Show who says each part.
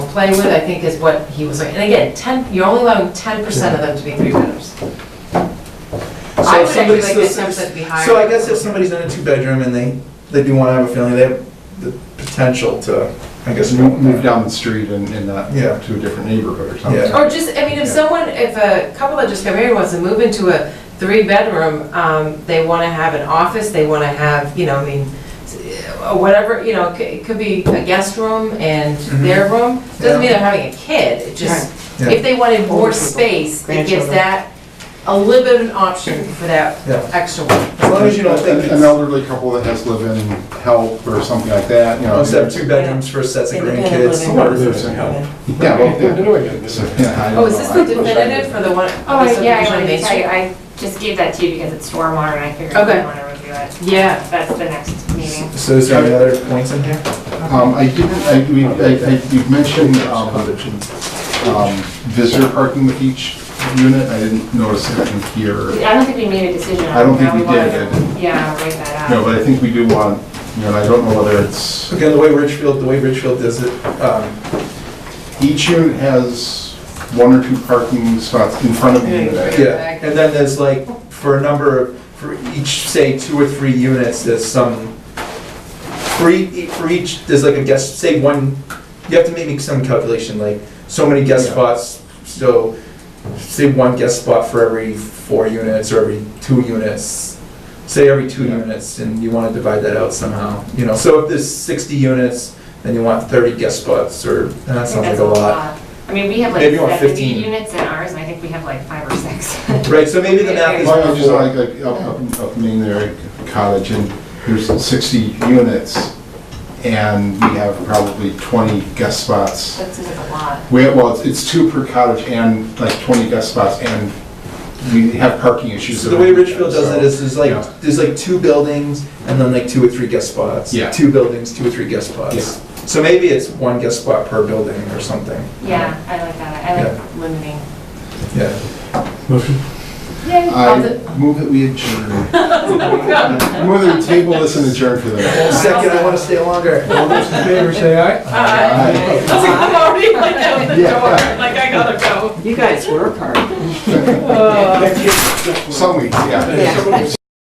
Speaker 1: play with, I think is what he was like. And again, ten, you're only allowing ten percent of them to be three bedrooms. I
Speaker 2: So
Speaker 1: would
Speaker 2: if
Speaker 1: actually
Speaker 2: somebody-
Speaker 1: like
Speaker 2: so-
Speaker 1: that ten percent to be higher.
Speaker 2: So I guess if somebody's in a two-bedroom and they, they do wanna have a family, they have the potential to, I guess, go
Speaker 3: Move
Speaker 2: with
Speaker 3: move
Speaker 2: that.
Speaker 3: down the street and, and not
Speaker 2: Yeah.
Speaker 3: to a different neighborhood or something.
Speaker 2: Yeah.
Speaker 1: Or just, I mean, if
Speaker 3: Yeah.
Speaker 1: someone, if a couple that just got married wants to move into a three-bedroom, um, they want to have an office, they want to have, you know, I mean, s- uh, whatever, you know, it c- it could be a guest room and their room.
Speaker 2: Mm-hmm. Yeah.
Speaker 1: Doesn't mean they're having a kid, it just,
Speaker 2: Yeah.
Speaker 1: if they wanted more
Speaker 4: Older people,
Speaker 1: space, it gives
Speaker 4: grandchildren.
Speaker 1: that a little bit of an option for that
Speaker 2: Yeah.
Speaker 1: extra one.
Speaker 2: As long as you don't think
Speaker 3: An
Speaker 2: it's,
Speaker 3: elderly couple that has live-in help or something like that, you know.
Speaker 2: unless they have two bedrooms for sets of
Speaker 4: Independent
Speaker 2: grandkids.
Speaker 4: living.
Speaker 2: or-
Speaker 3: Yeah, well, yeah. So,
Speaker 5: Yeah.
Speaker 3: yeah, I
Speaker 1: Oh,
Speaker 3: don't
Speaker 1: is this
Speaker 3: know.
Speaker 1: the
Speaker 3: I-
Speaker 1: definitive for the one?
Speaker 6: Oh,
Speaker 1: the
Speaker 6: yeah, I
Speaker 1: subdivision on
Speaker 6: wanted
Speaker 1: Main
Speaker 6: to tell you,
Speaker 1: Street?
Speaker 6: I just gave that to you because it's stormwater and I figured
Speaker 1: Okay.
Speaker 6: you want to review it.
Speaker 1: Yeah,
Speaker 6: That's the next meeting.
Speaker 2: So is there any other points in here?
Speaker 3: Um, I didn't, I, we, I, I- you've mentioned, um, um, visitor parking with each unit, I didn't notice that in here.
Speaker 6: I don't think we made a decision on
Speaker 3: I don't think
Speaker 6: how
Speaker 3: we
Speaker 6: wanna-
Speaker 3: did, I
Speaker 6: Yeah, write that
Speaker 3: No,
Speaker 6: out.
Speaker 3: but I think we do want, you know, and I don't know whether it's,
Speaker 2: Again, the way Ridgefield, the way Ridgefield does it, um,
Speaker 3: each unit has one or two parking spots in front of the unit.
Speaker 2: Yeah, and then there's like, for a number, of for each, say, two or three units, there's some, for each, for each, there's like a guest, say, one, you have to make some calculation, like, so many guest
Speaker 3: Yeah.
Speaker 2: spots, so, say, one guest spot for every four units, or every two units, say, every two
Speaker 3: Yeah.
Speaker 2: units, and you wanna divide that out somehow, you know, so if there's sixty units, then you want thirty guest spots, or, and
Speaker 6: I
Speaker 2: that
Speaker 6: think
Speaker 2: sounds like
Speaker 6: that's
Speaker 2: a lot.
Speaker 6: I mean, we have like
Speaker 2: Maybe you want
Speaker 6: 70
Speaker 2: 15.
Speaker 6: units in ours and I think we have like five or six.
Speaker 2: Right, so maybe the math is.
Speaker 3: Well, I just like, like, up, up, up Main there, cottage, and there's sixty units, and we have probably twenty guest spots.
Speaker 6: That's just a lot.
Speaker 3: We have, well, it's- it's two per cottage and like twenty guest spots, and we have parking issues.
Speaker 2: So the way
Speaker 3: over
Speaker 2: Richfield does it
Speaker 3: so-
Speaker 2: is, there's
Speaker 3: yeah.
Speaker 2: like, there's like two buildings and then like two or three guest spots.
Speaker 3: Yeah.
Speaker 2: Two buildings, two or three guest
Speaker 3: Yeah.
Speaker 2: spots. So maybe it's one guest spot per building or something.
Speaker 6: Yeah, I like that. I
Speaker 2: Yeah.
Speaker 6: like limiting.
Speaker 2: Yeah.
Speaker 3: I move that we adjourn. Move that we table this and adjourn for the night.
Speaker 2: Second, I wanna stay longer. All those in favor say aye.
Speaker 3: Aye.
Speaker 1: I'm already like out the
Speaker 3: Yeah.
Speaker 1: door, like I gotta go.
Speaker 4: You guys were a part.
Speaker 3: Some weeks, yeah.
Speaker 4: Yeah.